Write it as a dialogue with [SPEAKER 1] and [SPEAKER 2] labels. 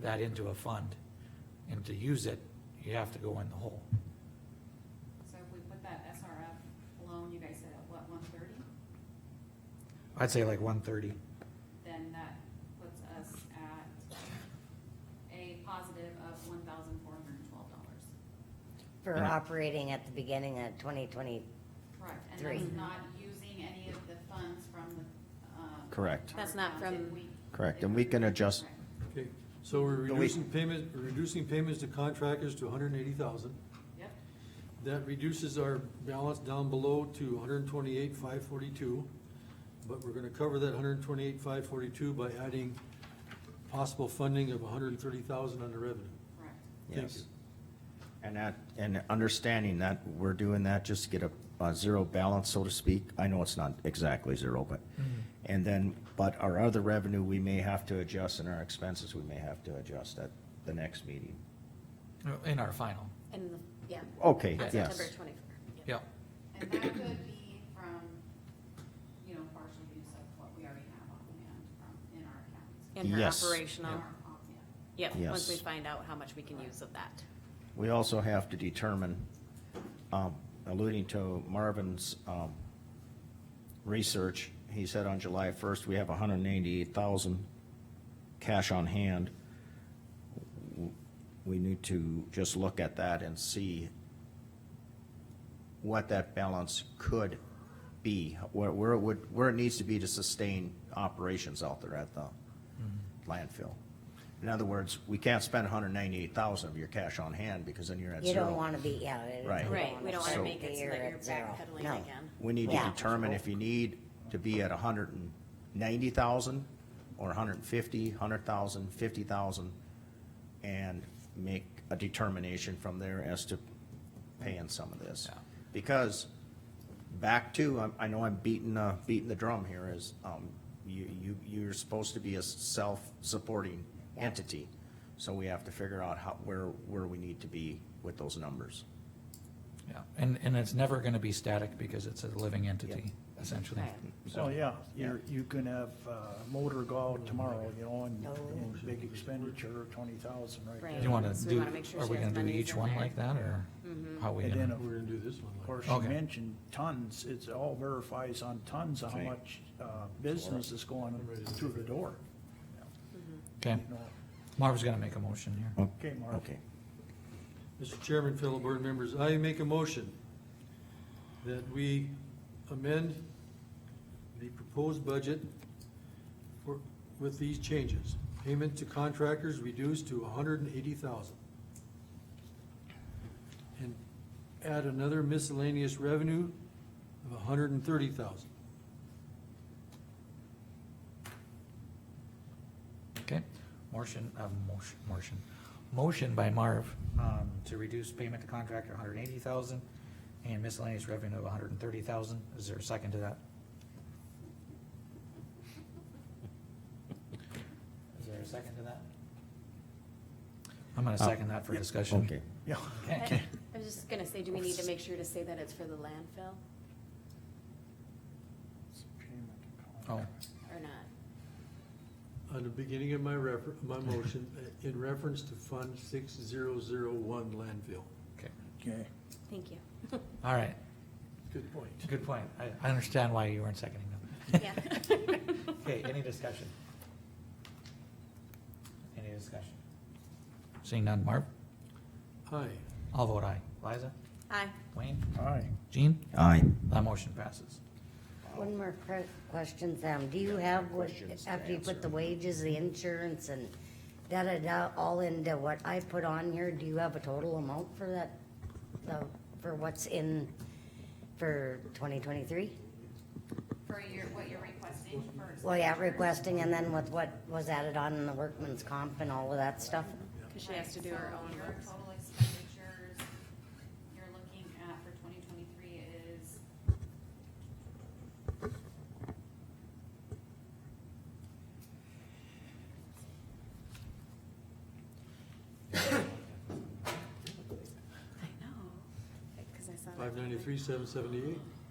[SPEAKER 1] that into a fund. And to use it, you have to go in the hole.
[SPEAKER 2] So if we put that SRF loan, you guys said at what, one thirty?
[SPEAKER 1] I'd say like one thirty.
[SPEAKER 2] Then that puts us at a positive of one thousand four hundred and twelve dollars.
[SPEAKER 3] For
[SPEAKER 4] And-
[SPEAKER 3] operating at the beginning of twenty twenty,
[SPEAKER 2] Correct, and
[SPEAKER 3] Three.
[SPEAKER 2] that's not using any of the funds from the, um.
[SPEAKER 4] Correct.
[SPEAKER 5] That's not
[SPEAKER 2] ARPA funds
[SPEAKER 5] from-
[SPEAKER 2] if we-
[SPEAKER 4] Correct,
[SPEAKER 2] if
[SPEAKER 4] and we can adjust-
[SPEAKER 2] Correct.
[SPEAKER 6] Okay, so we're
[SPEAKER 4] But we-
[SPEAKER 6] reducing payment, we're reducing payments to contractors to hundred and eighty thousand.
[SPEAKER 2] Yep,
[SPEAKER 6] That reduces our balance down below to hundred and twenty-eight, five forty-two. But we're gonna cover that hundred and twenty-eight, five forty-two by adding possible funding of hundred and thirty thousand on the revenue.
[SPEAKER 2] correct.
[SPEAKER 6] Thank
[SPEAKER 4] Yes.
[SPEAKER 6] you.
[SPEAKER 4] And that, and understanding that we're doing that just to get a, a zero balance, so to speak. I know it's not exactly zero, but, and then, but our other revenue, we may have to adjust and our expenses, we may have to adjust at the next meeting.
[SPEAKER 1] In our final,
[SPEAKER 5] And, the- yeah.
[SPEAKER 4] Okay,
[SPEAKER 5] On
[SPEAKER 4] yes.
[SPEAKER 5] September twenty-fourth.
[SPEAKER 1] yeah.
[SPEAKER 2] And that could be from, you know, partial use of what we already have on hand from, in our accounts.
[SPEAKER 5] In her
[SPEAKER 4] Yes.
[SPEAKER 2] In
[SPEAKER 5] operational,
[SPEAKER 2] our op- yeah.
[SPEAKER 5] yep, once we
[SPEAKER 4] Yes.
[SPEAKER 5] find out how much we can use of that.
[SPEAKER 4] We also have to determine, um, alluding to Marvin's, um, research, he said on July first, we have hundred and eighty-eight thousand cash on hand. W- We need to just look at that and see what that balance could be, where, where it would, where it needs to be to sustain operations out there at the landfill. In other words, we can't spend hundred and ninety-eight thousand of your cash on hand because then you're at
[SPEAKER 3] you
[SPEAKER 4] zero.
[SPEAKER 3] don't wanna be, yeah. you
[SPEAKER 4] Right.
[SPEAKER 3] don't
[SPEAKER 5] Right, we don't wanna
[SPEAKER 4] So-
[SPEAKER 3] start
[SPEAKER 5] make
[SPEAKER 3] the
[SPEAKER 5] it so
[SPEAKER 3] year
[SPEAKER 5] that you're
[SPEAKER 3] at zero.
[SPEAKER 5] backpedaling
[SPEAKER 3] No.
[SPEAKER 5] again.
[SPEAKER 4] We need to
[SPEAKER 3] Yeah.
[SPEAKER 4] determine if you need to be at hundred and ninety thousand or 150, 100,000, 50,000, and make a determination from there as to paying some of this.
[SPEAKER 1] Yeah.
[SPEAKER 4] Because back to, I'm- I know I'm beating, uh, beating the drum here is, um, you, you, you're supposed to be a self-supporting
[SPEAKER 3] Yeah.
[SPEAKER 4] entity. So we have to figure out how, where, where we need to be with those numbers.
[SPEAKER 1] Yeah, and, and it's never gonna be static because it's a living entity, essentially.
[SPEAKER 5] Right.
[SPEAKER 7] So, Oh, yeah, you're, you can have uh, motor go out tomorrow, you know, and,
[SPEAKER 3] No.
[SPEAKER 7] and big expenditure, twenty thousand right
[SPEAKER 5] Right.
[SPEAKER 7] there.
[SPEAKER 1] You wanna
[SPEAKER 5] So we
[SPEAKER 1] do,
[SPEAKER 5] wanna make sure
[SPEAKER 1] are
[SPEAKER 5] she
[SPEAKER 1] we
[SPEAKER 5] has
[SPEAKER 1] gonna do
[SPEAKER 5] monies
[SPEAKER 1] each
[SPEAKER 5] in
[SPEAKER 1] one
[SPEAKER 5] there. Mm-hmm.
[SPEAKER 1] like that, or how we
[SPEAKER 7] And then
[SPEAKER 1] gonna?
[SPEAKER 7] of
[SPEAKER 6] We're gonna do this one.
[SPEAKER 7] Of
[SPEAKER 6] like-
[SPEAKER 7] course, you
[SPEAKER 1] Okay.
[SPEAKER 7] mentioned tons, it's all verifies on tons how
[SPEAKER 4] Right.
[SPEAKER 7] much uh, business is going through the door.
[SPEAKER 1] Okay,
[SPEAKER 7] You know,
[SPEAKER 1] Marv's gonna make a motion here.
[SPEAKER 7] Okay, Marv.
[SPEAKER 4] Okay.
[SPEAKER 6] Mr. Chairman, fellow board members, I make a motion that we amend the proposed budget for, with these changes. Payment to contractors reduced to hundred and eighty thousand. And add another miscellaneous revenue of hundred and thirty thousand.
[SPEAKER 1] Okay, motion, uh, motion, motion, motion by Marv, um, to reduce payment to contractor hundred and eighty thousand and miscellaneous revenue of hundred and thirty thousand. Is there a second to that? Is there a second to that? I'm gonna second that for discussion.
[SPEAKER 4] Okay.
[SPEAKER 7] Yeah,
[SPEAKER 1] Okay.
[SPEAKER 5] I I was just gonna say, do we need to make sure to say that it's for the landfill
[SPEAKER 1] Oh,
[SPEAKER 5] or not?
[SPEAKER 6] On the beginning of my refer, my motion, in reference to Fund six zero zero one landfill.
[SPEAKER 1] okay,
[SPEAKER 7] okay.
[SPEAKER 5] Thank you.
[SPEAKER 1] all right,
[SPEAKER 6] Good point.
[SPEAKER 1] good point. I, I understand why you weren't seconding them.
[SPEAKER 5] Yeah.
[SPEAKER 1] Okay, any discussion? Any discussion? Seeing none, Marv?
[SPEAKER 6] Aye.
[SPEAKER 1] I'll vote aye. Liza?
[SPEAKER 5] Aye.
[SPEAKER 1] Wayne?
[SPEAKER 7] All right.
[SPEAKER 1] Jean?
[SPEAKER 4] Aye.
[SPEAKER 1] That motion passes.
[SPEAKER 3] One more que- question, Sam, do you have what,
[SPEAKER 4] Questions to
[SPEAKER 3] after you put the
[SPEAKER 4] answer.
[SPEAKER 3] wages, the insurance and da-da-da, all into what I put on here, do you have a total amount for that? The, for what's in, for twenty twenty-three?
[SPEAKER 2] For your, what you're requesting first.
[SPEAKER 3] Well, yeah, requesting and then with what was added on in the workman's comp and all of that stuff?
[SPEAKER 5] Cause she has to do
[SPEAKER 2] Right,
[SPEAKER 5] her own
[SPEAKER 2] so Your
[SPEAKER 5] work.
[SPEAKER 2] total expenditures you're looking at for twenty twenty-three is.
[SPEAKER 5] I know, cause I saw that.
[SPEAKER 6] Five ninety-three, seven seventy-eight.